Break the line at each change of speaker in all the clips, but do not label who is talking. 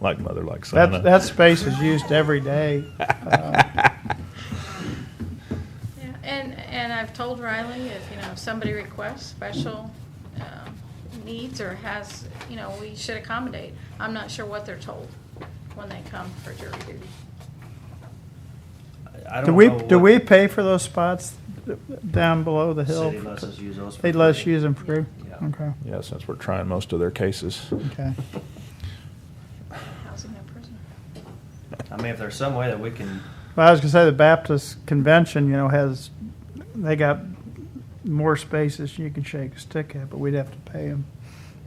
like mother, like son.
That, that space is used every day. Uh,
Yeah, and, and I've told Riley, if, you know, if somebody requests special um, needs or has, you know, we should accommodate. I'm not sure what they're told when they come for jury duty.
I don't
Do we,
know
do
what
we pay for those spots down below the hill?
City lets us use those. for
They let us
free.
use them free?
Yeah.
Okay,
Yeah, since we're trying most of their cases.
okay.
Housing that prisoner.
I mean, if there's some way that we can,
Well, I was gonna say the Baptist convention, you know, has, they got more spaces you can shake a stick at, but we'd have to pay them.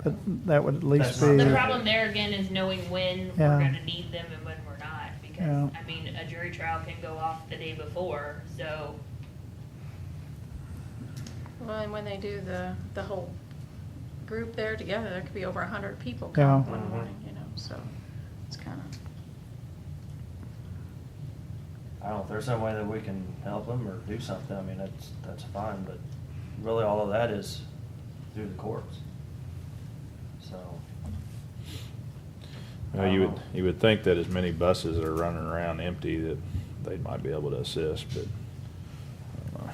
But that would at least
That's
be,
not-
The problem there again is knowing when
Yeah.
we're gonna need them and when we're not, because,
Yeah.
I mean, a jury trial can go off the day before, so.
Well, and when they do the, the whole group there together, there could be over a hundred people
Yeah.
come one
Mhm.
morning, you know, so it's kind of.
I don't know, if there's some way that we can help them or do something, I mean, that's, that's fine, but really all of that is through the courts. So,
You, know, Uh, you would you would think that as many buses that are running around empty that they might be able to assist, but I don't know.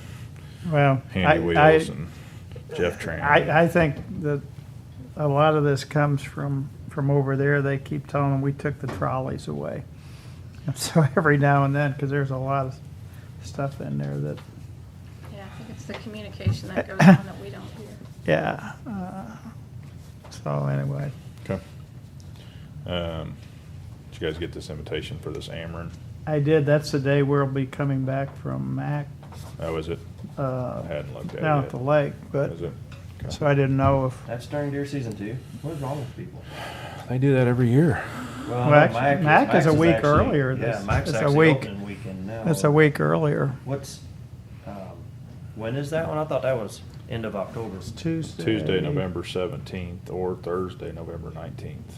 well. I-
Handy
I-
Wheels and Jeff Tran.
I, I think that a lot of this comes from, from over there. They keep telling them, we took the trolleys away. And so every now and then, because there's a lot of stuff in there that,
Yeah, I think it's the communication that goes on that we don't hear.
yeah. uh, So anyway,
Okay. Um, did you guys get this invitation for this Ameren?
I did, that's the day we'll be coming back from Mac,
Oh, is it?
uh,
I hadn't looked at it
down at the
yet.
lake, but,
Is it? Okay.
so I didn't know if,
that's during deer season too, what is wrong with people?
They do that every year.
Well,
Well, actually,
Mac
Mac is a
Mac's
week
actually-
earlier
Yeah,
this-
Mac's
it's a
actually
week.
opening weekend now.
that's a week earlier.
What's, um, when is that one? I thought that was end of October.
It's Tuesday.
Tuesday, November seventeenth, or Thursday, November nineteenth.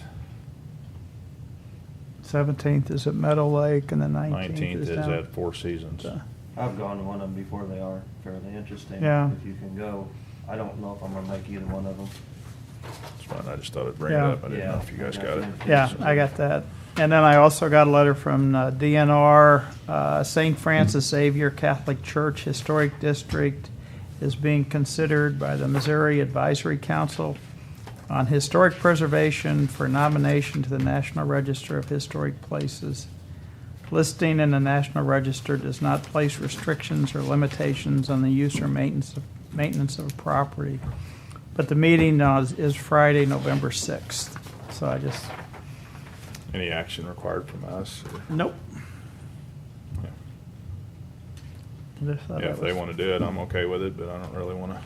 Seventeenth is at Meadow Lake and the nineteenth
Nineteenth
is
is
down.
at Four Seasons.
So-
I've gone to one of them before, they are fairly interesting.
Yeah.
If you can go, I don't know if I'm gonna make either one of them.
That's fine. I just thought I'd bring it
Yeah.
up. I didn't know if you guys got it.
Yeah, I got that. And then I also got a letter from uh, DNR, uh, St. Francis Xavier Catholic Church Historic District is being considered by the Missouri Advisory Council on Historic Preservation for nomination to the National Register of Historic Places. Listing in the National Register does not place restrictions or limitations on the use or maintenance of, maintenance of a property. But the meeting uh, is- is Friday, November 6th, so I just,
Any action required from us? or-
nope.
Yeah.
Just thought
Yeah,
that
if they
was-
want to do it, I'm okay with it, but I don't really want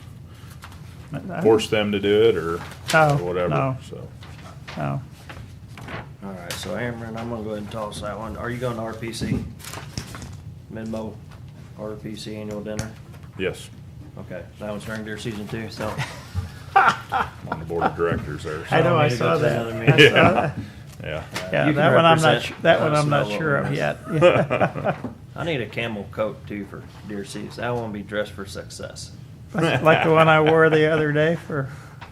to
I-
force them to do it or
No,
or whatever,
no.
so.
Oh,
All right, so Amron, I'm gonna go ahead and toss that one. Are you going to RPC? Midmo, RPC annual dinner?
Yes,
Okay, that one's during deer season too, so.
I'm on the board of directors there. so-
I know, I
need to go
saw
to
that.
another
I
meeting.
saw that.
Yeah.
Yeah,
You can
that one I'm not,
represent.
su- that one
Let us
I'm not
know what
sure
we
of
miss.
yet.
I need a camel coat too for deer season. I want to be dressed for success.
Like the one I wore the other day for,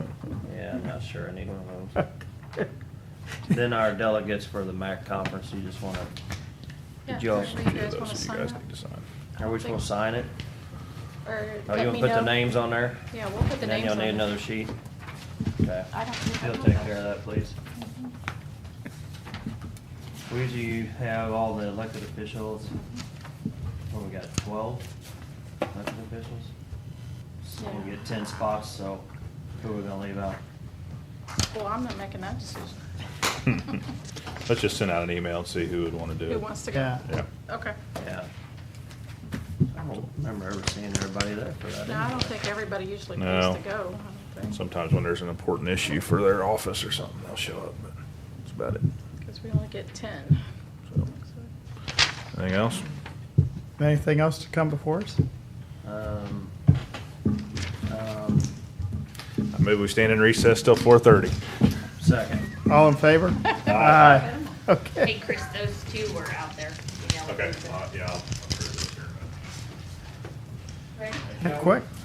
Yeah, I'm not sure I need one of those. Then our delegates for the MAC conference, you just want to,
Yeah,
Did y'all-
if you
Few of
guys
those
want to
that you
sign
guys
up,
need to sign.
are we supposed to sign it?
or
Are
let
Oh, you gonna
me
put the
know.
names on there?
Yeah, we'll put the
And then
names
you'll
on
need
it.
another sheet? Okay.
I don't think I
You'll
know
take
that.
care of that, please. We usually have all the elected officials.
Mm-hmm.
What, we got twelve elected officials? So we
Yeah.
get ten spots, so who are we gonna leave out?
Well, I'm not making that decision.
Hmm. Let's just send out an email and see who would want to do it.
Who wants to
yeah.
go?
Yeah.
Okay.
Yeah. I don't remember ever seeing everybody there for that.
No, I don't
anyway.
think everybody usually
No.
pays to go. I don't think.
Sometimes when there's an important issue for their office or something, they'll show up, but that's about it.
Because we only get ten.
So, Anything else?
Anything else to come before us?
Um, um,
I move we stand in recess till four thirty.
second.
All in favor? Aye. Okay.
Hey, Chris, those two were out there. you know,
Okay,
those-
uh, yeah. I'll-
Right?
Quick.